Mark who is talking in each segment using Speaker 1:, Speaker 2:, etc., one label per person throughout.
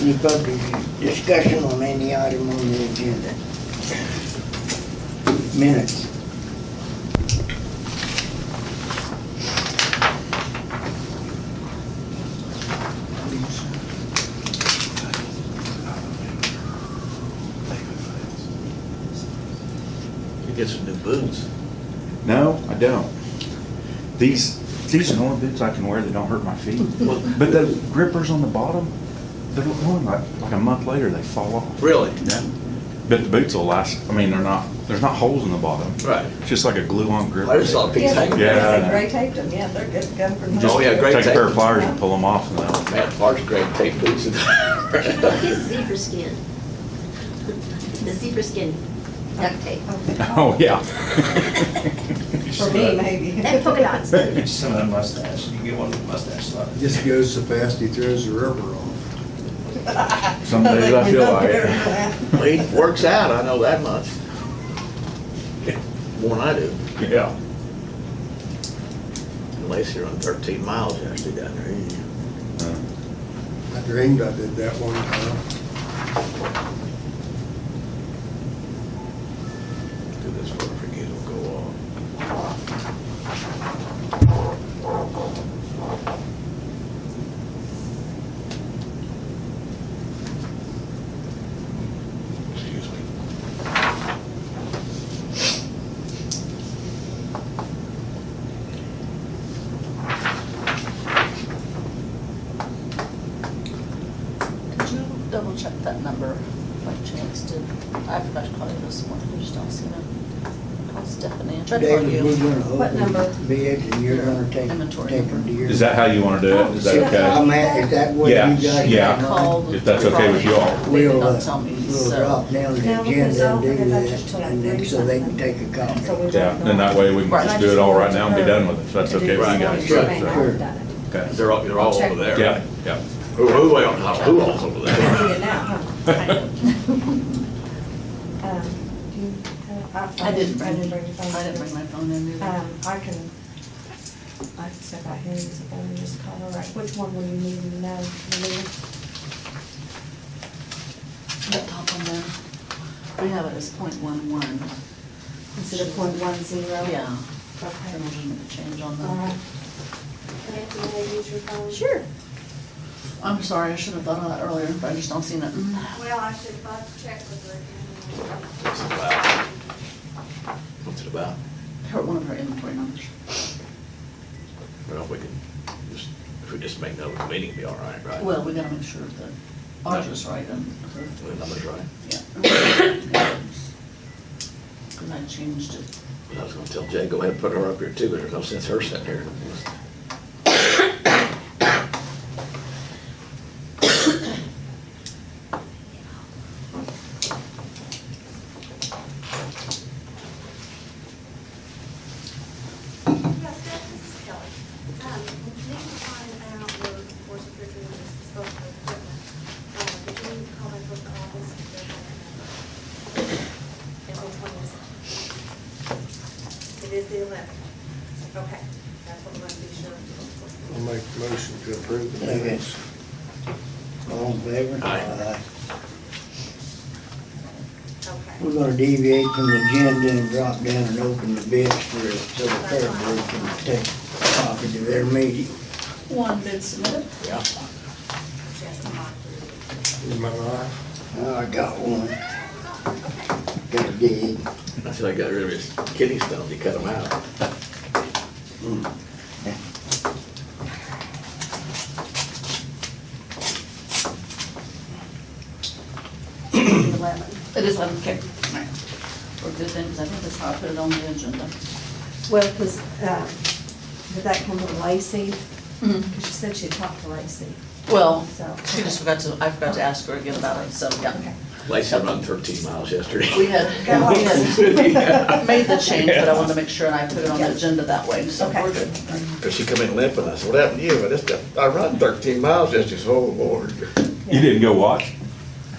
Speaker 1: Any public discussion on any item on the agenda? Minutes.
Speaker 2: You get some new boots.
Speaker 3: No, I don't. These, these are the only boots I can wear that don't hurt my feet.
Speaker 2: Well-
Speaker 3: But the grippers on the bottom, they're only like, like a month later, they fall off.
Speaker 2: Really?
Speaker 3: Yeah. But the boots will last, I mean, they're not, there's not holes in the bottom.
Speaker 2: Right.
Speaker 3: It's just like a glue-on gripper.
Speaker 2: I just saw a piece
Speaker 4: Yeah,
Speaker 2: of
Speaker 3: Yeah.
Speaker 4: they gray taped them, yeah, they're good, good for.
Speaker 2: Oh, yeah, great
Speaker 3: Take a pair
Speaker 2: tape.
Speaker 3: of pliers and pull them off and they'll.
Speaker 2: Man, Clark's great tape boots.
Speaker 5: Get zebra skin. The zebra skin duct tape.
Speaker 3: Oh, yeah.
Speaker 4: For me, maybe.
Speaker 5: And polka dots.
Speaker 6: Get you some of that mustache, you can get one with mustache
Speaker 7: It
Speaker 6: slide.
Speaker 7: Just goes so fast, he throws the rubber off.
Speaker 3: Some days I feel like it.
Speaker 2: Well, He works out, I know that much. More than I do.
Speaker 3: Yeah.
Speaker 2: Unless you're on thirteen miles actually down there. you-
Speaker 3: Uh,
Speaker 7: I dreamed I did that one time.
Speaker 2: Do this for forget it'll go off. Excuse me.
Speaker 4: Could you double check that number by chance? Did, I forgot to call you this morning, I just don't see it. Call Stephanie, I tried to call
Speaker 1: David, we're
Speaker 4: you.
Speaker 1: gonna
Speaker 4: What number?
Speaker 1: open bids and you're gonna take,
Speaker 4: Inventory
Speaker 1: take them
Speaker 4: number.
Speaker 1: to your.
Speaker 3: Is that how you want to do it? Is that okay?
Speaker 1: I'm at, is that what you
Speaker 3: Yeah,
Speaker 1: guys? have
Speaker 3: yeah.
Speaker 1: in mind?
Speaker 4: Called
Speaker 3: If that's okay with you all.
Speaker 4: They did
Speaker 1: We'll, uh,
Speaker 4: not tell me,
Speaker 1: we'll
Speaker 4: so.
Speaker 1: drop down the
Speaker 8: No, because
Speaker 1: agenda and
Speaker 8: I'll
Speaker 1: do
Speaker 8: forget about just
Speaker 1: this,
Speaker 8: till
Speaker 1: and then, so they can take a copy.
Speaker 8: So we don't
Speaker 3: Yeah, then that way we can
Speaker 4: Right.
Speaker 3: just do it all right now and be done with it. if That's okay with you guys.
Speaker 2: Sure,
Speaker 8: Right, now
Speaker 3: So,
Speaker 8: we've done it.
Speaker 3: Okay.
Speaker 2: They're all, they're all over there.
Speaker 3: Yeah, yeah.
Speaker 2: Who, who, wait, who all's over there?
Speaker 8: We need it now, huh? Um, do you have-
Speaker 4: I didn't bring,
Speaker 8: I
Speaker 4: I
Speaker 8: didn't bring your phone.
Speaker 4: didn't bring my phone in either. Ah.
Speaker 8: Um, I can, I can step out here and just, and just call her, right, which one will you need to know? You need-
Speaker 4: That top one there, we have it as point one one. Oh,
Speaker 8: Instead of point one zero?
Speaker 4: Yeah. I don't
Speaker 8: Okay.
Speaker 4: know, we need to change on
Speaker 8: All right.
Speaker 4: that.
Speaker 8: Can I have you to use your phone?
Speaker 4: I'm sorry, I should have thought of that earlier, but I just don't see it.
Speaker 9: Well, I should uh, check with her.
Speaker 2: What's it about? What's it about?
Speaker 4: Her, one of her inventory numbers.
Speaker 2: Well, we can just, if we just make note of the meeting, be all right, right?
Speaker 4: Well, we gotta make sure that ours is right and her
Speaker 2: The number's right.
Speaker 4: Because I changed it.
Speaker 2: But I was gonna tell Jay, go ahead and put her up here too, but there's no sense her sitting here.
Speaker 9: Yes, this is Kelly. Um, Need to find out where the force of your is disposable equipment. Uh, Did you need to call my book office? and get that number? And which one is it? It is the eleven. Okay, that's what I'm gonna be sure.
Speaker 7: I'll make a motion to approve the
Speaker 1: Okay.
Speaker 7: minutes.
Speaker 1: All in favor?
Speaker 2: Aye.
Speaker 9: Okay.
Speaker 1: We're gonna deviate from the agenda and drop down and open the bids for, so the fair board can take a copy to their meeting.
Speaker 4: One bid submitted.
Speaker 2: Yeah.
Speaker 9: She has to lock through.
Speaker 7: Is my line?
Speaker 1: Oh, I got one. Got a dig.
Speaker 2: That's how I got rid of his kidney stones, he cut them out.
Speaker 4: Eleven. It is eleven, okay. All right. We're good then, 'cause I think that's how I put it on the agenda.
Speaker 8: Well, because, did that come from Lacey?
Speaker 4: Mhm.
Speaker 8: Because she said she had talked to Lacey,
Speaker 4: Well,
Speaker 8: so.
Speaker 4: she just forgot to, I forgot to ask her again about it, so, yeah.
Speaker 2: Lacey run thirteen miles yesterday.
Speaker 4: We had,
Speaker 8: Got
Speaker 4: we had made the change, but I wanted to make sure, and I put it on the
Speaker 8: Yeah.
Speaker 4: agenda that way, so
Speaker 8: Okay.
Speaker 4: we're good.
Speaker 2: Cause she come in limping, I said, what happened to you? I just, I run thirteen miles yesterday, so, oh lord.
Speaker 3: You didn't go watch?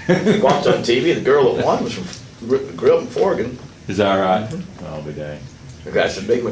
Speaker 2: Watched on TV, the girl that won was from Gr- Grilled and Forgan.
Speaker 3: Is that right? I'll be dang.
Speaker 2: The guy said, big